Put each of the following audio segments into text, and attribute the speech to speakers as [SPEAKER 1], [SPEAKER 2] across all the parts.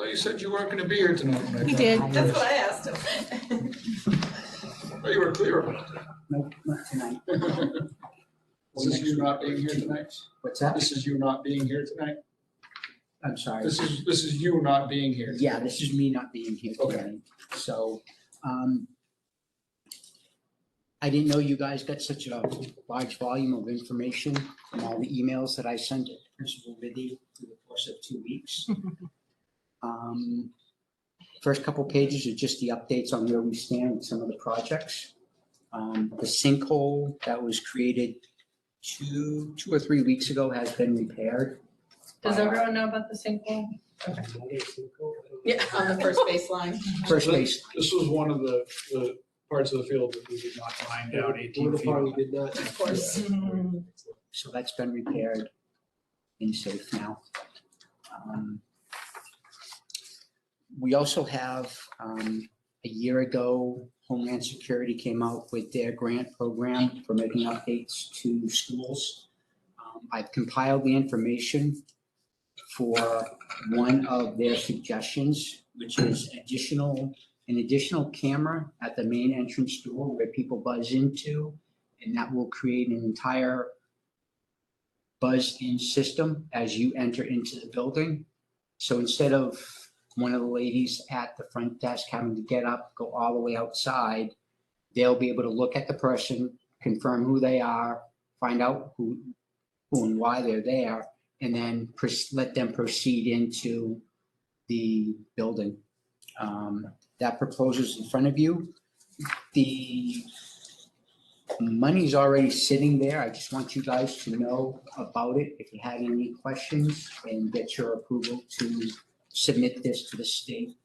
[SPEAKER 1] you said you weren't gonna be here tonight. when I
[SPEAKER 2] He
[SPEAKER 1] got
[SPEAKER 2] did.
[SPEAKER 1] home.
[SPEAKER 3] That's what I asked him.
[SPEAKER 1] Oh, You were clear about that.
[SPEAKER 4] Nope, not tonight.
[SPEAKER 1] This is you not being here tonight?
[SPEAKER 4] What's that?
[SPEAKER 1] This is you not being here tonight?
[SPEAKER 4] I'm sorry.
[SPEAKER 1] This is, this is you not being here.
[SPEAKER 4] Yeah, this is me not being here
[SPEAKER 1] Okay.
[SPEAKER 4] tonight. So, um, I didn't know you guys got such a large volume of information from all the emails that I sent to Principal Biddy through the course of two weeks. Um, First couple pages are just the updates on where we stand with some of the projects. Um, The sinkhole that was created two, two or three weeks ago has been repaired.
[SPEAKER 2] Does everyone know about the sinkhole?
[SPEAKER 3] Yeah, on the first baseline.
[SPEAKER 4] First base,
[SPEAKER 5] This was one of the, the parts of the field that we did not find out eighteen feet.
[SPEAKER 6] did not.
[SPEAKER 3] Of course.
[SPEAKER 4] So that's been repaired and safe now. Um, We also have, um, a year ago, Homeland Security came out with their grant program for making updates to schools. Um, I've compiled the information for one of their suggestions, which is additional, an additional camera at the main entrance door where people buzz into. And that will create an entire buzz-in system as you enter into the building. So instead of one of the ladies at the front desk having to get up, go all the way outside, they'll be able to look at the person, confirm who they are, find out who, who and why they're there, and then pres- let them proceed into the building. Um, That proposal's in front of you. The money's already sitting there. I just want you guys to know about it. If you had any questions and get your approval to submit this to the state.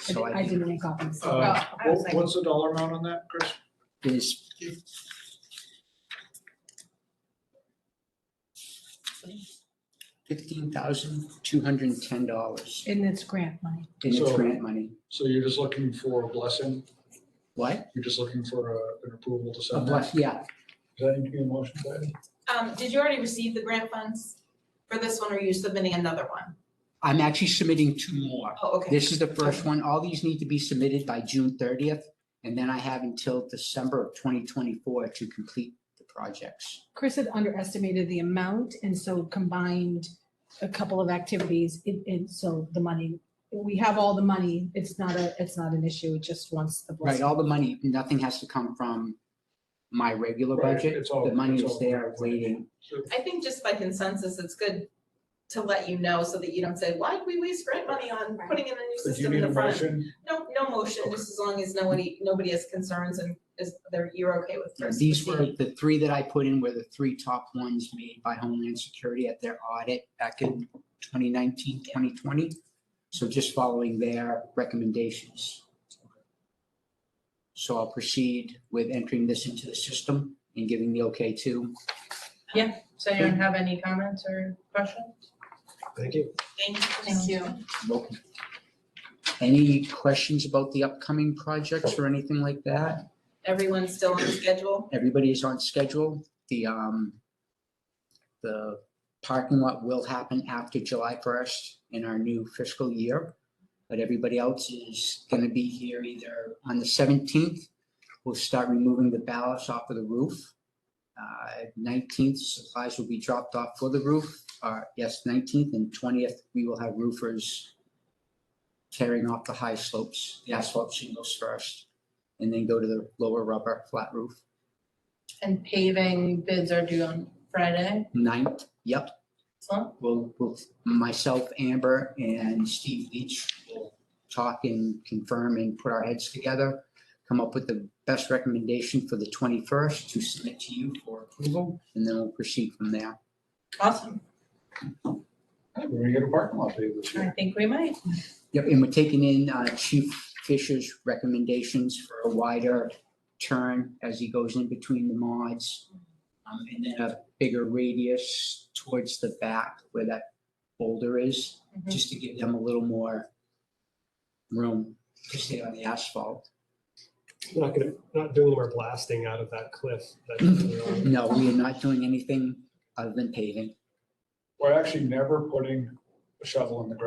[SPEAKER 4] So I
[SPEAKER 2] didn't make copies.
[SPEAKER 5] Uh,
[SPEAKER 2] I was
[SPEAKER 1] What-
[SPEAKER 2] like-
[SPEAKER 1] What's the dollar amount on that, Chris?
[SPEAKER 4] is fifteen thousand two hundred and ten dollars
[SPEAKER 2] And it's grant money.
[SPEAKER 4] in its
[SPEAKER 1] So-
[SPEAKER 4] grant money.
[SPEAKER 1] So you're just looking for a blessing?
[SPEAKER 4] What?
[SPEAKER 1] You're just looking for a- an approval to
[SPEAKER 4] A
[SPEAKER 1] send that?
[SPEAKER 4] bless, yeah,
[SPEAKER 1] Does that need to be a motion, Patty?
[SPEAKER 3] Um, did you already receive the grant funds for this one, or are you submitting another one?
[SPEAKER 4] I'm actually submitting two more.
[SPEAKER 3] Oh, okay.
[SPEAKER 4] This is the first one. All these need to be submitted by June thirtieth. And then I have until December of twenty twenty-four to complete the projects.
[SPEAKER 2] Chris had underestimated the amount and so combined a couple of activities and, and so the money, we have all the money. It's not a, it's not an issue. It just wants the
[SPEAKER 4] Right,
[SPEAKER 2] blessing.
[SPEAKER 4] all the money, nothing has to come from my regular
[SPEAKER 1] Right,
[SPEAKER 4] budget.
[SPEAKER 1] it's all-
[SPEAKER 4] The money
[SPEAKER 1] it's
[SPEAKER 4] is
[SPEAKER 1] all-
[SPEAKER 4] there waiting
[SPEAKER 3] I think just by consensus, it's good to let you know so that you don't say, why did we waste grant money on putting in a new
[SPEAKER 1] So do you
[SPEAKER 3] system in
[SPEAKER 1] need a
[SPEAKER 3] the front?
[SPEAKER 1] motion?
[SPEAKER 3] No, no motion, just as long as nobody, nobody has concerns and is, they're, you're okay with
[SPEAKER 4] Yeah,
[SPEAKER 3] first.
[SPEAKER 4] These were,
[SPEAKER 3] proceeding.
[SPEAKER 4] the three that I put in were the three top ones made by Homeland Security at their audit back in 2019, 2020. So just following their recommendations. So I'll proceed with entering this into the system and giving the okay to.
[SPEAKER 7] Does anyone have any comments or questions?
[SPEAKER 6] Thank you.
[SPEAKER 3] Thank you. Thank you.
[SPEAKER 4] Welcome. Any questions about the upcoming projects or anything like that?
[SPEAKER 3] Everyone's still on schedule?
[SPEAKER 4] Everybody is on schedule. The, um, the parking lot will happen after July first in our new fiscal year. But everybody else is gonna be here either on the seventeenth, we'll start removing the ballast off of the roof. Uh, Nineteenth, supplies will be dropped off for the roof, uh, yes, nineteenth and twentieth, we will have roofers tearing off the high slopes, the asphalt shingles first, and then go to the lower rubber flat roof.
[SPEAKER 7] And paving bids are due on Friday,
[SPEAKER 4] Ninth, yep,
[SPEAKER 7] so
[SPEAKER 4] we'll, we'll, myself, Amber, and Steve Leach will talk and confirm and put our heads together, come up with the best recommendation for the 21st to submit to you for approval, and then we'll proceed from there.
[SPEAKER 7] awesome.
[SPEAKER 1] We're gonna get a parking lot paved this
[SPEAKER 7] I
[SPEAKER 1] year.
[SPEAKER 7] think we might.
[SPEAKER 4] Yep, and we're taking in uh, Chief Fisher's recommendations for a wider turn as he goes in between the mods. um, And then a bigger radius towards the back where that boulder is,
[SPEAKER 7] Mhm.
[SPEAKER 4] just to give them a little more room to stay on the asphalt.
[SPEAKER 6] Not gonna, not doing more blasting out of that cliff. that-
[SPEAKER 4] No, we are not doing anything other than paving.
[SPEAKER 1] We're actually never putting a shovel in the ground.